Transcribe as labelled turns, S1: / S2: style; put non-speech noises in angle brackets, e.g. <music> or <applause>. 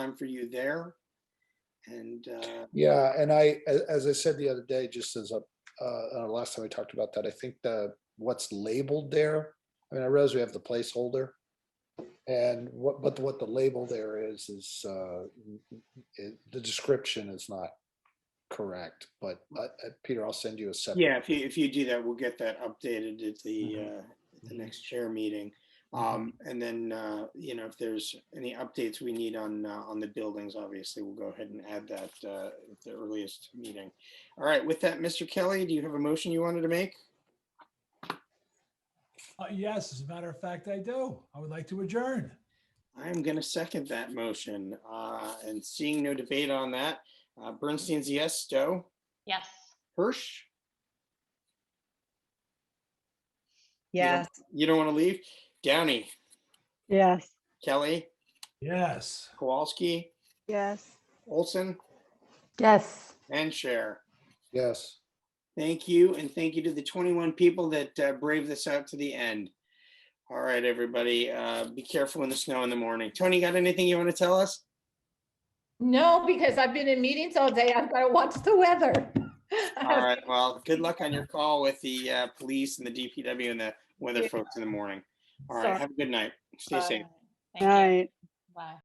S1: time for you there. And uh,
S2: Yeah, and I, a- as I said the other day, just as a, uh, uh, last time we talked about that, I think the, what's labeled there. I mean, I realize we have the placeholder. And what, but what the label there is, is, uh, it, the description is not correct, but, uh, uh, Peter, I'll send you a separate.
S1: yeah, if you, if you do that, we'll get that updated at the,
S2: Mhm.
S1: uh, the next chair meeting. Um, And then, uh, you know, if there's any updates we need on, uh, on the buildings, obviously, we'll go ahead and add that uh, at the earliest meeting. All right, with that, Mr. Kelly, do you have a motion you wanted to make?
S3: Uh, Yes, as a matter of fact, I do. I would like to adjourn.
S1: I'm going to second that motion. uh, And seeing no debate on that, uh, Bernstein's yes, Stowe,
S4: Yes.
S1: Hirsch,
S5: Yes,
S1: you don't want to leave, Downey,
S6: Yes.
S1: Kelly,
S3: Yes.
S1: Kowalski,
S6: Yes.
S1: Olson,
S4: Yes.
S1: and Cher.
S2: Yes.
S1: Thank you, and thank you to the 21 people that uh, braved this out to the end. All right, everybody, uh, be careful in the snow in the morning. Tony, got anything you want to tell us?
S7: No, because I've been in meetings all day. I've got to watch the weather.
S1: All
S7: <laughs>
S1: right, well, good luck on your call with the uh, police and the DPW and the weather folks in the morning. All right,
S7: Sorry.
S1: have a good night. Stay safe.
S4: Thank
S6: All
S4: you.
S6: right.
S4: Bye.